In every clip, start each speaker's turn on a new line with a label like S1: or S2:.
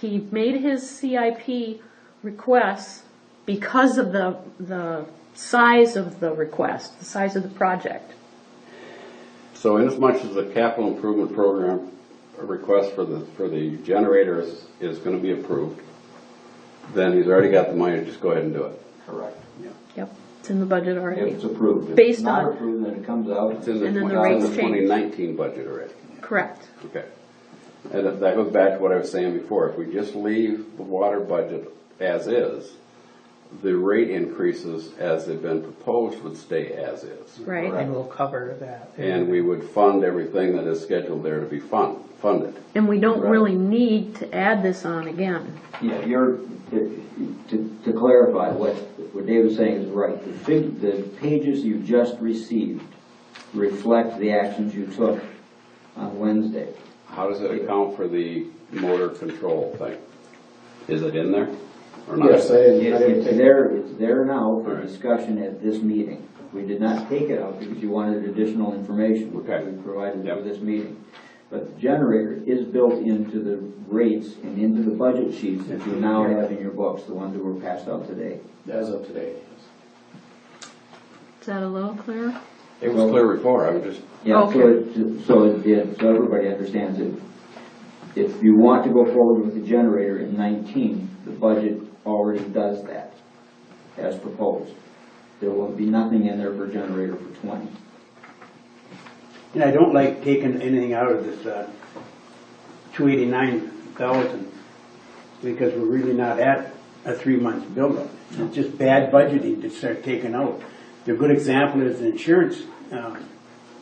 S1: he made his CIP requests because of the, the size of the request, the size of the project.
S2: So inasmuch as the capital improvement program request for the, for the generator is, is gonna be approved, then he's already got the money, just go ahead and do it.
S3: Correct.
S1: Yep, it's in the budget
S3: If
S1: already.
S3: it's approved. If
S1: Based
S3: it's not
S1: on-
S3: approved, then it comes out.
S2: It's in the
S1: And then the
S2: 20
S1: rates change.
S2: 2019 budget already,
S1: Correct.
S2: okay. And that that goes back to what I was saying before, if we just leave the water budget as is, the rate increases as they've been proposed would stay as is.
S1: Right,
S4: And we'll cover that.
S2: And we would fund everything that is scheduled there to be fund, funded.
S1: and we don't really need to add this on again.
S3: Yeah, you're, to, to clarify, what, what David's saying is right. The fig, the pages you just received reflect the actions you took on Wednesday.
S2: How does it account for the motor control thing? Is it in there or not?
S5: Yes, I didn't, I
S3: It's
S5: didn't
S3: it's
S5: think-
S3: there, it's there now for
S2: Alright.
S3: discussion at this meeting. We did not take it out because you wanted additional information. which
S2: Okay.
S3: We provided
S2: Yep.
S3: for this meeting. But the generator is built into the rates and into the budget sheets that you now have in your books, the ones that were passed out today.
S5: as of today.
S1: Is that a little clear?
S2: It was clear before, I was just,
S3: Yeah, so
S1: Okay.
S3: it, so it, yeah, so everybody understands it. If you want to go forward with the generator in nineteen, the budget already does that, as proposed. There will be nothing in there for generator for twenty.
S6: And I don't like taking anything out of this, uh, two eighty-nine thousand, because we're really not at a three-month buildup. It's just bad budgeting to start taking out. The good example is the insurance, um,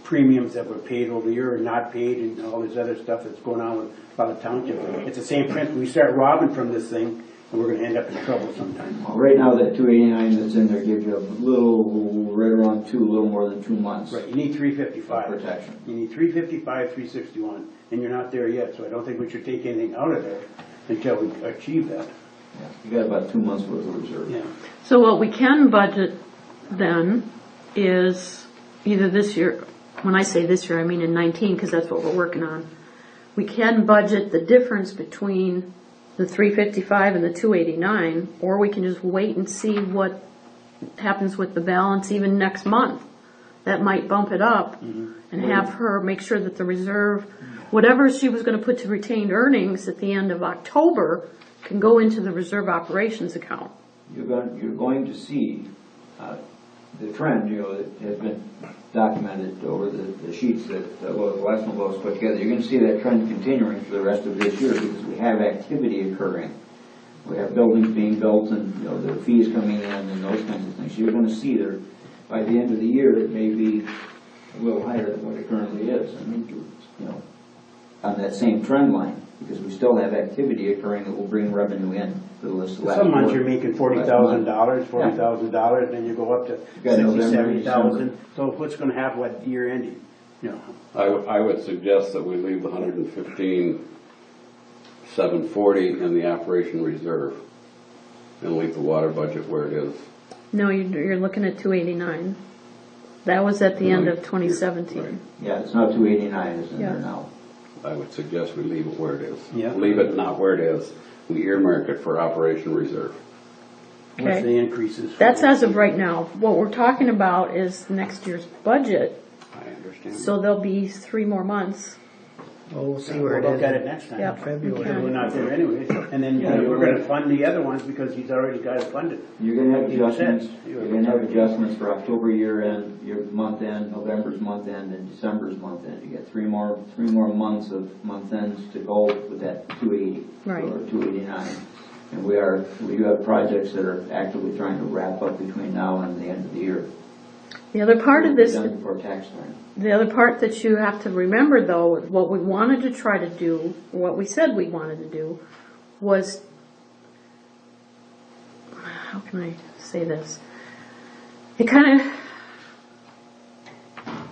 S6: premiums that were paid over the year and not paid and all this other stuff that's going on with, by the township. It's the same principle. We start robbing from this thing, and we're gonna end up in trouble sometime.
S3: Well, Right now, that two eighty-nine that's in there gives you a little, right around two, a little more than two months.
S6: Right, you need three fifty-five.
S3: Protection.
S6: You need three fifty-five, three sixty-one, and you're not there yet, so I don't think we should take anything out of there until we achieve that,
S3: Yeah, You got about two months worth of reserve.
S6: yeah.
S1: So what we can budget then is either this year, when I say this year, I mean in 19, because that's what we're working on. We can budget the difference between the 355 and the 289, or we can just wait and see what happens with the balance even next month. That might bump it up and have her make sure that the reserve, whatever she was going to put to retained earnings at the end of October, can go into the reserve operations account.
S3: You're going, you're going to see uh, the trend, you know, that has been documented over the the sheets that, uh, well, the last one was put together. You're going to see that trend continuing for the rest of this year because we have activity occurring. We have buildings being built and, you know, the fees coming in and those kinds of things. You're going to see there, by the end of the year, it may be a little higher than what it currently is. I mean, you know, on that same trend line, because we still have activity occurring that will bring revenue in for the last quarter.
S6: Some months you're making forty thousand dollars,
S3: Yeah.
S6: forty thousand dollars, then you go up to
S3: got
S6: sixty,
S3: November,
S6: seventy thousand,
S3: December.
S6: so what's gonna happen with year ending, you know?
S2: I, w- I would suggest that we leave the hundred and fifteen, seven forty in the operation reserve and leave the water budget where it is.
S1: No, you- you're looking at 289. That was at the end of 2017.
S3: Yeah, it's not two eighty-nine, it's in
S1: Yeah.
S3: there now.
S2: I would suggest we leave it where it is.
S6: Yeah.
S2: Leave it not where it is, we earmark it for operation reserve.
S6: What's
S1: Okay.
S6: the increases? for-
S1: That's as of right now. What we're talking about is next year's budget,
S2: I understand.
S1: so there'll be three more months.
S4: Well, we'll see where
S6: We'll
S4: it
S6: look
S4: is.
S6: at it next time.
S1: Yep.
S6: Because we're
S4: February.
S6: not there anyway, and then you know, we're gonna fund the other ones because he's already got it funded.
S3: You're gonna have
S6: Like you said,
S3: adjustments,
S6: you-
S3: you're gonna have adjustments for October year end, your month end, November's month end, and December's month end. You got three more, three more months of month ends to go with that two eighty.
S1: Right.
S3: Or two eighty-nine. And we are, we do have projects that are actively trying to wrap up between now and the end of the year.
S1: The other part of
S3: We'll be
S1: this,
S3: Done before tax time.
S1: the other part that you have to remember though, what we wanted to try to do, what we said we wanted to do, was, how can I say this? It kind of,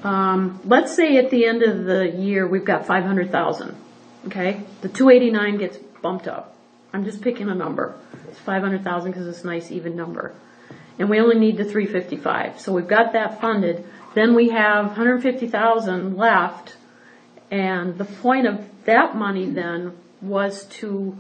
S1: Um, let's say at the end of the year, we've got five hundred thousand, okay? The two eighty-nine gets bumped up. I'm just picking a number. It's five hundred thousand because it's a nice even number. And we only need the three fifty-five, so we've got that funded. Then we have hundred fifty thousand left. And the point of that money then was to